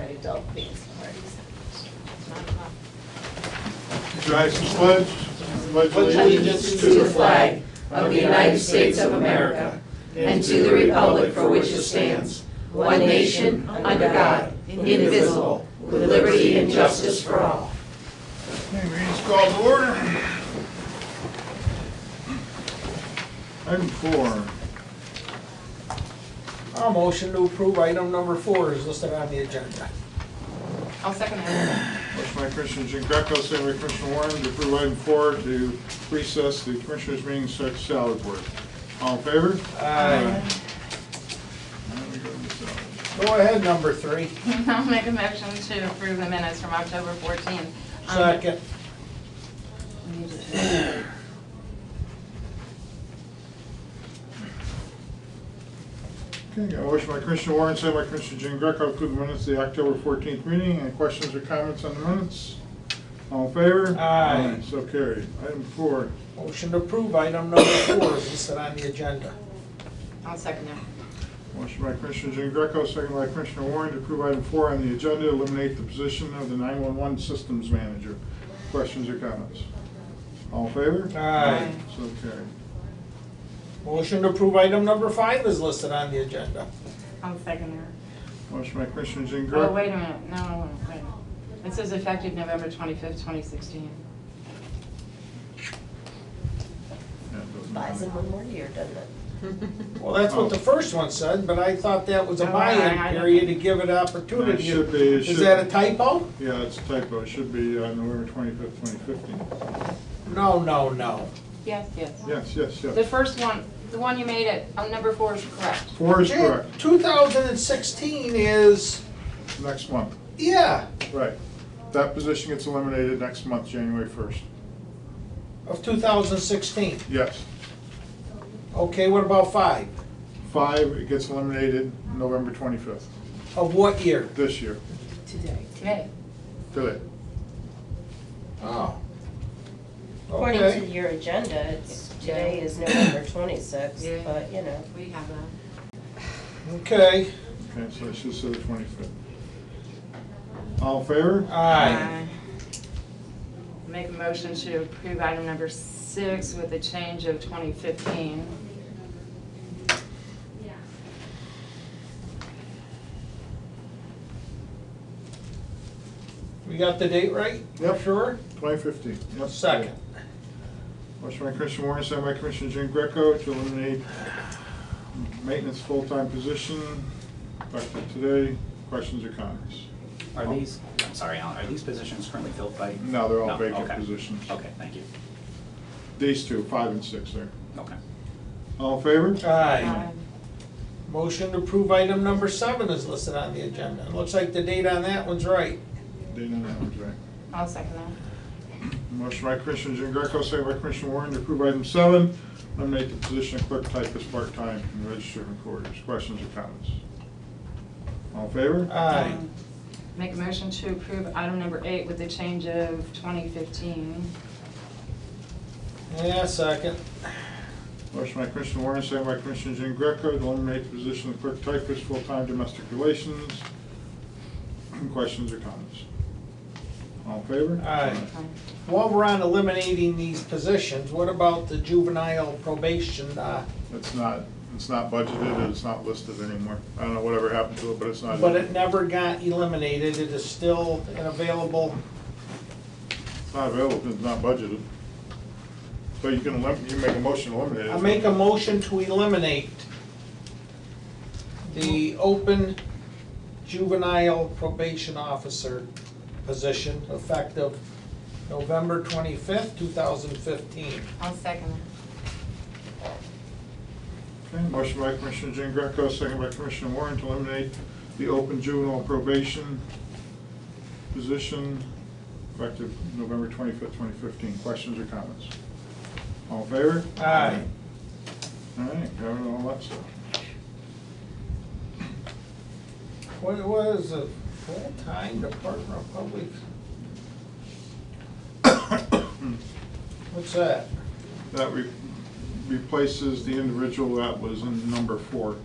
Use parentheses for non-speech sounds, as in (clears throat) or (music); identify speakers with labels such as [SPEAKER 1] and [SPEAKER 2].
[SPEAKER 1] adult things parties.
[SPEAKER 2] Drive some pledge. Pledge
[SPEAKER 3] allegiance to the flag of the United States of America and to the republic for which it stands, one nation, under God, indivisible, with liberty and justice for all.
[SPEAKER 2] Okay, meeting's called to order. Item four.
[SPEAKER 4] I'll motion to approve item number four is listed on the agenda.
[SPEAKER 3] I'll second that.
[SPEAKER 2] Motion by Commissioner Jean Greco, second by Commissioner Warren, to approve item four to recess the commissioners' meeting, start salad board. All in favor? Aye. Now we go to the salad.
[SPEAKER 4] Go ahead, number three.
[SPEAKER 3] (laughs) I'll make a motion to approve the minutes from October 14th. Um,
[SPEAKER 4] Second.
[SPEAKER 3] we need to-
[SPEAKER 2] Okay, got a motion by Commissioner Warren, second by Commissioner Jean Greco, to approve the minutes of the October 14th meeting. Any questions or comments on the minutes? All in favor?
[SPEAKER 4] Aye.
[SPEAKER 2] So carried. Item four.
[SPEAKER 4] Motion to approve item number four is listed on the agenda.
[SPEAKER 3] I'll second that.
[SPEAKER 2] Motion by Commissioner Jean Greco, second by Commissioner Warren to approve item four on the agenda, eliminate the position of the 911 Systems Manager. Questions or comments? All in favor?
[SPEAKER 4] Aye.
[SPEAKER 2] So carried.
[SPEAKER 4] Motion to approve item number five is listed on the agenda.
[SPEAKER 3] I'll second that.
[SPEAKER 2] Motion by Commissioner Jean Greco.
[SPEAKER 3] Oh, wait a minute, no, wait. It says effective November 25th, 2016.
[SPEAKER 2] Yeah, it
[SPEAKER 1] Buys
[SPEAKER 2] doesn't matter.
[SPEAKER 1] them one more year, doesn't it?
[SPEAKER 4] Well, that's what the
[SPEAKER 2] Oh.
[SPEAKER 4] first one said, but I thought that was a
[SPEAKER 3] Oh, I- I-
[SPEAKER 4] buy-in period to give it
[SPEAKER 2] It
[SPEAKER 4] opportunity.
[SPEAKER 2] should be, it
[SPEAKER 4] Is
[SPEAKER 2] should-
[SPEAKER 4] that a typo?
[SPEAKER 2] Yeah, it's a typo. It should be uh, November 25th, 2015.
[SPEAKER 4] No, no, no.
[SPEAKER 3] Yes, yes.
[SPEAKER 2] Yes, yes,
[SPEAKER 3] The
[SPEAKER 2] yes.
[SPEAKER 3] first one, the one you made it, on number four is correct.
[SPEAKER 2] Four is correct.
[SPEAKER 4] Two thousand and sixteen is,
[SPEAKER 2] Next month.
[SPEAKER 4] yeah,
[SPEAKER 2] Right. That position gets eliminated next month, January 1st.
[SPEAKER 4] of two thousand and sixteen.
[SPEAKER 2] Yes.
[SPEAKER 4] Okay, what about five?
[SPEAKER 2] Five, it gets eliminated November 25th,
[SPEAKER 4] Of what year?
[SPEAKER 2] this year.
[SPEAKER 1] Today.
[SPEAKER 3] Today.
[SPEAKER 2] Today.
[SPEAKER 4] Oh.
[SPEAKER 1] According
[SPEAKER 4] Okay.
[SPEAKER 1] to your agenda, it's, today is November twenty-sixth,
[SPEAKER 3] Yeah.
[SPEAKER 1] but you know.
[SPEAKER 3] We have a.
[SPEAKER 4] Okay,
[SPEAKER 2] Okay, so it's just the 25th. All in favor?
[SPEAKER 4] aye.
[SPEAKER 3] Make a motion to approve item number six with a change of 2015.
[SPEAKER 4] We got the date right?
[SPEAKER 2] Yep.
[SPEAKER 4] Sure?
[SPEAKER 2] 2015. Yep.
[SPEAKER 4] Second.
[SPEAKER 2] Motion by Commissioner Warren, second by Commissioner Jean Greco to eliminate maintenance full-time position effective today. Questions or comments?
[SPEAKER 5] Are these, I'm sorry, Alan, are these positions currently filled by?
[SPEAKER 2] Oh. No, they're all vacant
[SPEAKER 5] okay.
[SPEAKER 2] positions.
[SPEAKER 5] Okay, thank you.
[SPEAKER 2] These two, five and six there.
[SPEAKER 5] Okay.
[SPEAKER 2] All in favor?
[SPEAKER 4] Aye. Motion to approve item number seven is listed on the agenda. It Looks like the date on that one's right.
[SPEAKER 2] Dana, that one's right.
[SPEAKER 3] I'll second that.
[SPEAKER 2] Motion by Commissioner Jean Greco, second by Commissioner Warren to approve item seven, eliminate the position of clerk typist part-time and registered recorders. Questions or comments? All in favor?
[SPEAKER 4] Aye.
[SPEAKER 3] Um, Make a motion to approve item number eight with a change of 2015.
[SPEAKER 4] Yeah, second.
[SPEAKER 2] Motion by Commissioner Warren, second by Commissioner Jean Greco to eliminate the position of clerk typist, full-time domestic relations. (clears throat) Questions or comments? All in favor?
[SPEAKER 4] Aye.
[SPEAKER 3] Aye.
[SPEAKER 4] While we're on eliminating these positions, what about the juvenile probation? uh,
[SPEAKER 2] It's not, it's not budgeted, and it's not listed anymore. I don't know whatever happened to it, but it's not.
[SPEAKER 4] But it never got eliminated. It is still an available,
[SPEAKER 2] It's not available, it's not budgeted. So you can elim, you make a motion to eliminate it.
[SPEAKER 4] I make a motion to eliminate the open juvenile probation officer position effective November twenty-fifth, two thousand fifteen.
[SPEAKER 3] I'll second
[SPEAKER 2] Okay, Motion by Commissioner Jean Greco, second by Commissioner Warren to eliminate the open juvenile probation position effective November twenty-fifth, twenty fifteen. Questions or comments? All in favor?
[SPEAKER 4] Aye.
[SPEAKER 2] All right, covered all that stuff.
[SPEAKER 4] What was a full-time Department of Public? (coughs) What's that?
[SPEAKER 2] That re- replaces the individual that was in number four.